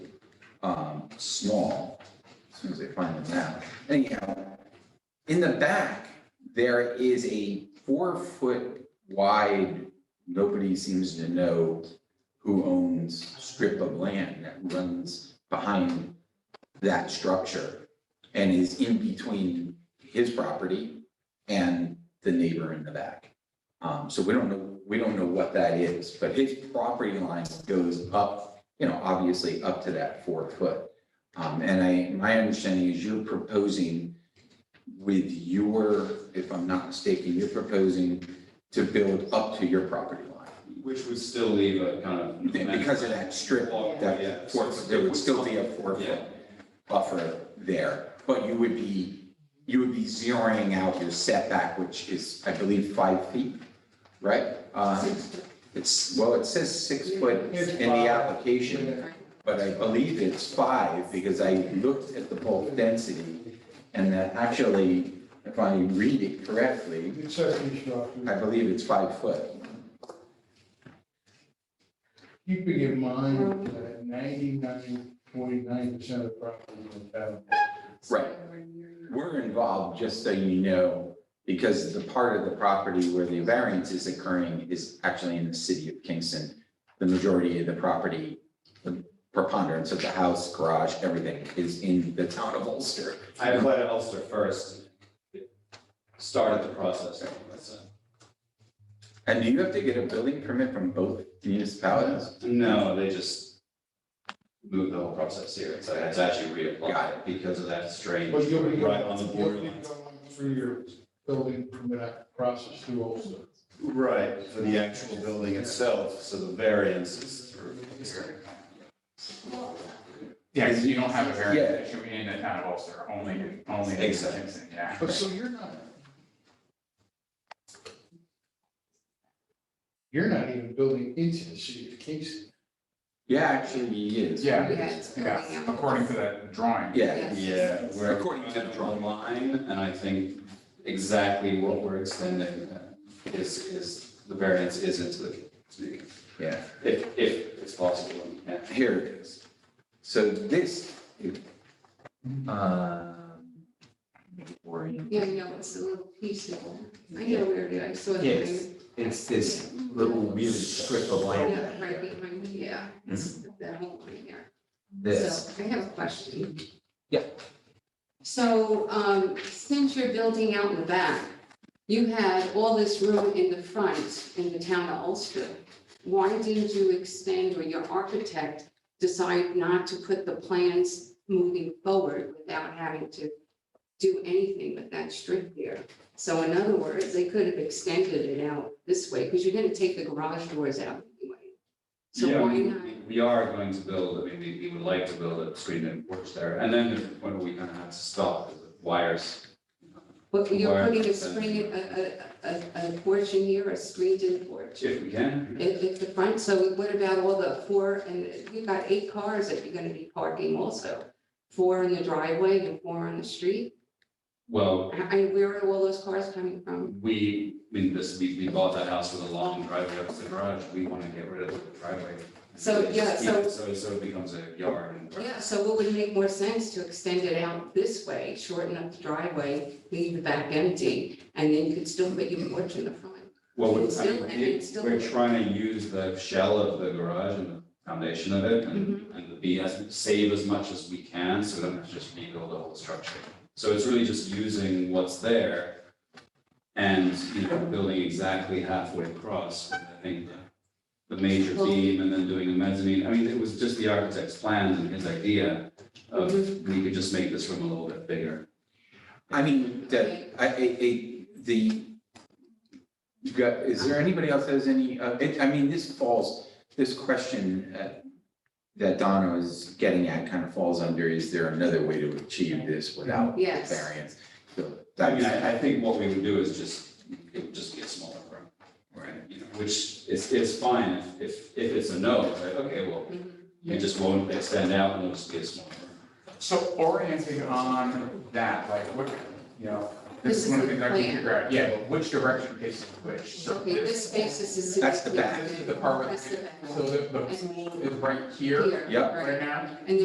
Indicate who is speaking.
Speaker 1: um, small, as soon as I find them now. Anyhow, in the back, there is a four-foot wide, nobody seems to know who owns strip of land that runs behind that structure and is in between his property and the neighbor in the back. Um, so we don't know, we don't know what that is, but his property line goes up, you know, obviously up to that four foot. Um, and I, my understanding is you're proposing with your, if I'm not mistaken, you're proposing to build up to your property line.
Speaker 2: Which would still leave a kind of.
Speaker 1: Because of that strip,
Speaker 2: Yeah.
Speaker 1: that four, there would still be a four foot
Speaker 2: Yeah.
Speaker 1: buffer there. But you would be, you would be zeroing out your setback, which is, I believe, five feet, right? Uh, It's, well, it says six foot
Speaker 3: It's
Speaker 1: in the
Speaker 3: five.
Speaker 1: application, but I believe it's five because I looked at the bulk density. And that actually, if I read it correctly,
Speaker 3: It's certainly shocking.
Speaker 1: I believe it's five foot.
Speaker 3: Keeping in mind that ninety-nine point nine percent of properties in town.
Speaker 1: Right. We're involved, just so you know, because the part of the property where the variance is occurring is actually in the city of Kingston. The majority of the property, the preponderance of the house, garage, everything is in the town of Ulster.
Speaker 2: I applied to Ulster first. Started the process, that's it.
Speaker 1: And do you have to get a building permit from both municipalities?
Speaker 2: No, they just moved the whole process here, so I had to actually
Speaker 1: Got
Speaker 2: reapply it because of that strange.
Speaker 3: But you'll be going-
Speaker 2: Right on the
Speaker 3: you'll be
Speaker 2: borderline.
Speaker 3: going Through your building permit process through also.
Speaker 2: Right, for the actual building itself, so the variance is through here.
Speaker 4: Yeah, because you don't have a variance
Speaker 1: Yeah.
Speaker 4: issue in the town of Ulster, only, only in
Speaker 2: Exactly.
Speaker 4: Kingston, yeah.
Speaker 3: But so you're not. You're not even building into the city of Kingston.
Speaker 1: Yeah, actually, he is.
Speaker 4: Yeah,
Speaker 5: Yeah, it's building
Speaker 4: yeah,
Speaker 5: up.
Speaker 4: according to that drawing.
Speaker 1: Yeah,
Speaker 2: Yeah, we're.
Speaker 1: According to the drawing.
Speaker 2: Line, and I think exactly what we're extending is, is, the variance is into the community,
Speaker 1: yeah.
Speaker 2: if, if it's possible, yeah.
Speaker 1: Here it is. So this. um, orient-
Speaker 5: Yeah, I know, it's a little piece of, I know where it is, I saw the
Speaker 1: Yes,
Speaker 5: thing.
Speaker 1: it's this little weird strip of land.
Speaker 5: Yeah, right behind me, yeah, it's
Speaker 1: Mm-hmm.
Speaker 5: that whole line there.
Speaker 1: This,
Speaker 5: So I have a question.
Speaker 1: Yeah.
Speaker 5: So, um, since you're building out in the back, you had all this room in the front in the town of Ulster. Why didn't you extend or your architect decide not to put the plans moving forward without having to do anything with that strip there? So in other words, they could have extended it out this way because you're going to take the garage doors out anyway. So
Speaker 2: Yeah,
Speaker 5: why
Speaker 2: we-
Speaker 5: not?
Speaker 2: We are going to build, I mean, we, we would like to build a screen and porch there, and then the point where we kind of have to stop is the wires.
Speaker 5: But you're
Speaker 2: Wire
Speaker 5: putting a
Speaker 2: fence.
Speaker 5: screen, a, a, a, a porch in here, a screened-in porch.
Speaker 2: If we can,
Speaker 5: If, if the front, so what about all the four, and you've got eight cars that you're gonna be parking also? Four in the driveway and four on the street?
Speaker 2: well,
Speaker 5: I, I- where are all those cars coming from?
Speaker 2: we, I mean, this, we, we bought that house with a long driveway up to the garage, we want to get rid of the driveway.
Speaker 5: So, yeah, so-
Speaker 2: So, so it becomes a yard and.
Speaker 5: Yeah, so what would make more sense to extend it out this way, shorten up the driveway, leave the back empty, and then you could still put your porch in the front?
Speaker 2: Well, we-
Speaker 5: It's
Speaker 2: I
Speaker 5: still-
Speaker 2: mean,
Speaker 5: and it's
Speaker 2: it-
Speaker 5: still-
Speaker 2: we're trying to use the shell of the garage and the foundation of it
Speaker 5: Mm-hmm.
Speaker 2: and, and the be as, save as much as we can, so then it's just rebuild the whole structure. So it's really just using what's there and, you know, building exactly halfway across, I think, the- the major
Speaker 5: Well-
Speaker 2: beam and then doing the mezzanine. I mean, it was just the architect's plans and his idea of,
Speaker 5: Mm-hmm.
Speaker 2: we could just make this room a little bit bigger.
Speaker 1: I mean, the, I, I, I- the, you got, is there anybody else that has any, uh, it, I mean, this falls, this question uh, that Donna was getting at kind of falls under, is there another way to achieve this without
Speaker 5: Yes,
Speaker 1: variance? So
Speaker 2: I mean,
Speaker 1: that's-
Speaker 2: I, I think what we would do is just, it would just be a smaller room. Right. You know, which is, is fine if, if, if it's a no, it's like, okay, well,
Speaker 5: Mhm.
Speaker 2: you just won't extend out and it'll just be a smaller room.
Speaker 4: So orienting on that, like, what, you know,
Speaker 5: This
Speaker 4: this
Speaker 5: is
Speaker 4: is one
Speaker 5: the
Speaker 4: of the things I
Speaker 5: plan.
Speaker 4: can figure out, yeah, but which direction faces which? So
Speaker 5: okay, this space is.
Speaker 1: That's the back.
Speaker 4: This is the part where,
Speaker 5: That's the back.
Speaker 4: so the, the pool is right here
Speaker 5: Here,
Speaker 1: Yep.
Speaker 5: right.
Speaker 4: right now?